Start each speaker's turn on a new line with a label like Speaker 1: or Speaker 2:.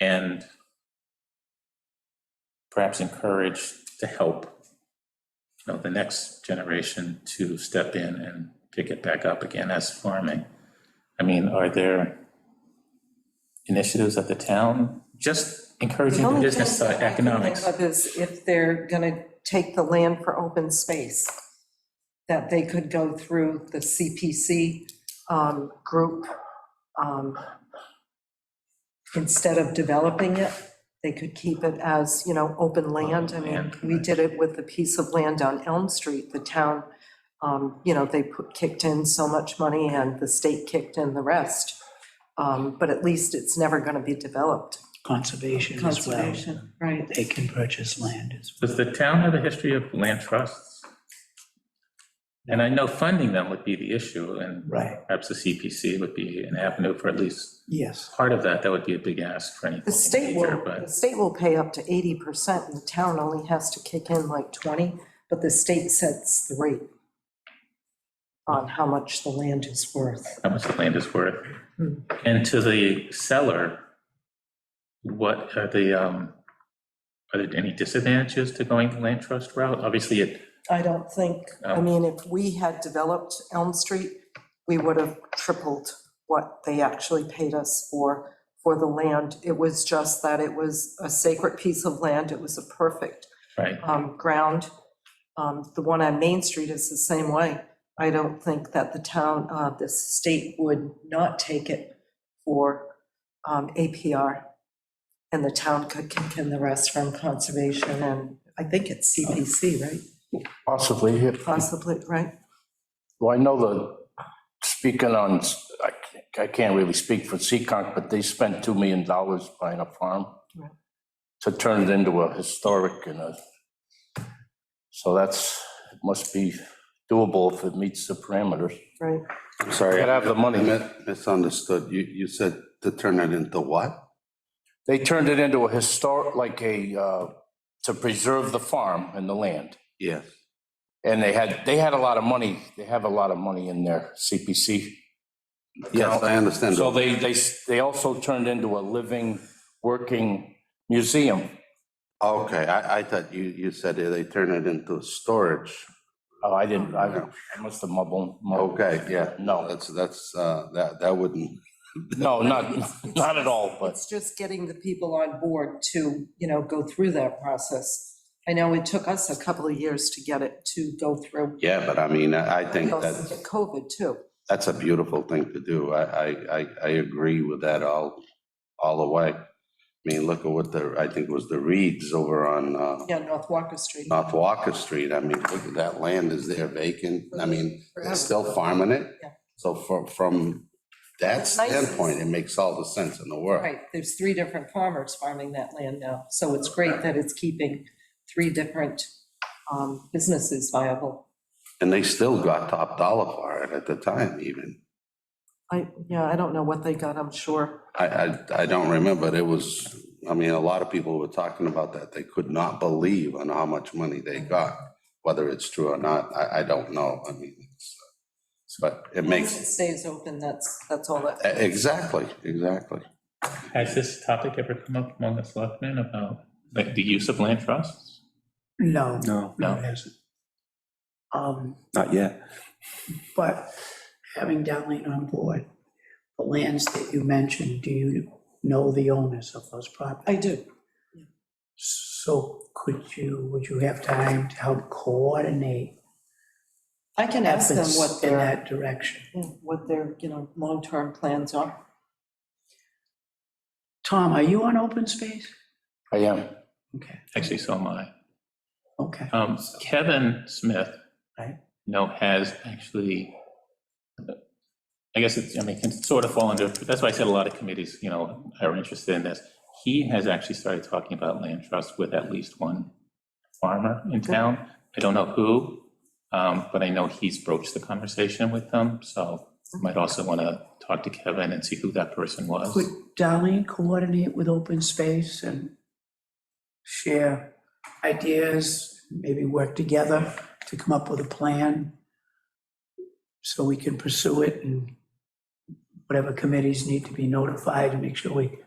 Speaker 1: and perhaps encourage to help, you know, the next generation to step in and pick it back up again as farming. I mean, are there initiatives at the town, just encouraging the
Speaker 2: only
Speaker 1: business
Speaker 2: thing that
Speaker 1: side,
Speaker 2: I can think
Speaker 1: economics?
Speaker 2: of Is if they're gonna take the land for open space, that they could go through the CPC um, group. um, Instead of developing it, they could keep it as, you know, open land. I mean,
Speaker 1: land,
Speaker 2: we did it with the piece of land on Elm Street. The town, um, you know, they put- kicked in so much money and the state kicked in the rest. Um, But at least it's never gonna be developed.
Speaker 3: conservation as well.
Speaker 2: Conservation, right.
Speaker 3: They can purchase land as well.
Speaker 1: Does the town have a history of land trusts? And I know funding them would be the issue, and
Speaker 3: Right,
Speaker 1: perhaps the CPC would be an avenue for at least
Speaker 3: yes.
Speaker 1: part of that. That would be a big ask for any
Speaker 2: The state
Speaker 1: major,
Speaker 2: will, the
Speaker 1: but
Speaker 2: state will pay up to eighty percent, and the town only has to kick in like twenty, but the state sets the rate on how much the land is worth.
Speaker 1: how much the land is worth.
Speaker 2: Hmm.
Speaker 1: And to the seller, what are the, um, are there any disadvantages to going the land trust route? Obviously, it,
Speaker 2: I don't think, I
Speaker 1: Oh.
Speaker 2: mean, if we had developed Elm Street, we would have tripled what they actually paid us for, for the land. It was just that it was a sacred piece of land, it was a perfect
Speaker 1: right,
Speaker 2: um, ground. Um, The one on Main Street is the same way. I don't think that the town, uh, the state would not take it for um, APR. And the town could kick in the rest from conservation and I think it's CPC, right?
Speaker 4: Possibly. yeah.
Speaker 2: Possibly, right?
Speaker 4: Well, I know the, speaking on, I can't- I can't really speak for Seekonk, but they spent $2 million buying a farm
Speaker 2: Right.
Speaker 4: to turn it into a historic and a, so that's, it must be doable if it meets the parameters.
Speaker 2: Right.
Speaker 5: I'm sorry.
Speaker 4: Gotta have the money.
Speaker 5: I mi- Misunderstood. You, you said to turn it into what?
Speaker 4: They turned it into a historic, like a, uh, to preserve the farm and the land.
Speaker 5: Yes.
Speaker 4: And they had, they had a lot of money, they have a lot of money in their CPC.
Speaker 5: Yes, I understand.
Speaker 4: So they, they, they also turned into a living, working museum.
Speaker 5: Okay, I, I thought you, you said they turned it into storage.
Speaker 4: Oh, I didn't, I I must have mumbled. mumbled.
Speaker 5: Okay, yeah.
Speaker 4: No,
Speaker 5: That's, that's, uh, that, that wouldn't,
Speaker 4: no, not, not at all, but
Speaker 2: It's just getting the people on board to, you know, go through that process. I know it took us a couple of years to get it to go through.
Speaker 5: yeah, but I mean, I I think that's,
Speaker 2: COVID too.
Speaker 5: that's a beautiful thing to do. I, I, I, I agree with that all, all the way. I mean, look at what the, I think it was the Reeds over on, uh,
Speaker 2: Yeah, North Walker Street.
Speaker 5: North Walker Street, I mean, look at that land is there vacant, I mean, they're still farming it.
Speaker 2: Yeah.
Speaker 5: So from, from that
Speaker 2: It's nice.
Speaker 5: standpoint, it makes all the sense in the world.
Speaker 2: Right, there's three different farmers farming that land now, so it's great that it's keeping three different um, businesses viable.
Speaker 5: And they still got top dollar for it at the time even.
Speaker 2: I, yeah, I don't know what they got, I'm sure.
Speaker 5: I, I, I don't remember, it was, I mean, a lot of people were talking about that, they could not believe on how much money they got. Whether it's true or not, I, I don't know, I mean, it's, uh, but it
Speaker 2: Once
Speaker 5: makes, e-,
Speaker 2: it Stays open, that's, that's all that.
Speaker 5: exactly, exactly.
Speaker 1: has this topic ever come up among the selectmen about, like, the use of land trusts?
Speaker 3: No,
Speaker 6: No,
Speaker 3: no, it hasn't. Um,
Speaker 6: not yet.
Speaker 3: But having Darlene on board, the lands that you mentioned, do you know the owners of those properties?
Speaker 2: I do.
Speaker 3: So could you, would you have time to help coordinate
Speaker 2: I can ask them what
Speaker 3: efforts in
Speaker 2: their,
Speaker 3: that direction?
Speaker 2: what their, you know, long-term plans are.
Speaker 3: Tom, are you on open space?
Speaker 4: I am.
Speaker 3: Okay,
Speaker 1: Actually, so am I.
Speaker 3: okay.
Speaker 1: Um, Kevin Smith.
Speaker 3: Right.
Speaker 1: you know, has actually, I guess it's, I mean, can sort of fall under, that's why I said a lot of committees, you know, are interested in this. He has actually started talking about land trusts with at least one farmer in town. I don't know who, um, but I know he's broached the conversation with them, so might also want to talk to Kevin and see who that person was.
Speaker 3: Could Darlene coordinate with open space and share ideas, maybe work together to come up with a plan so we can pursue it and whatever committees need to be notified and make sure we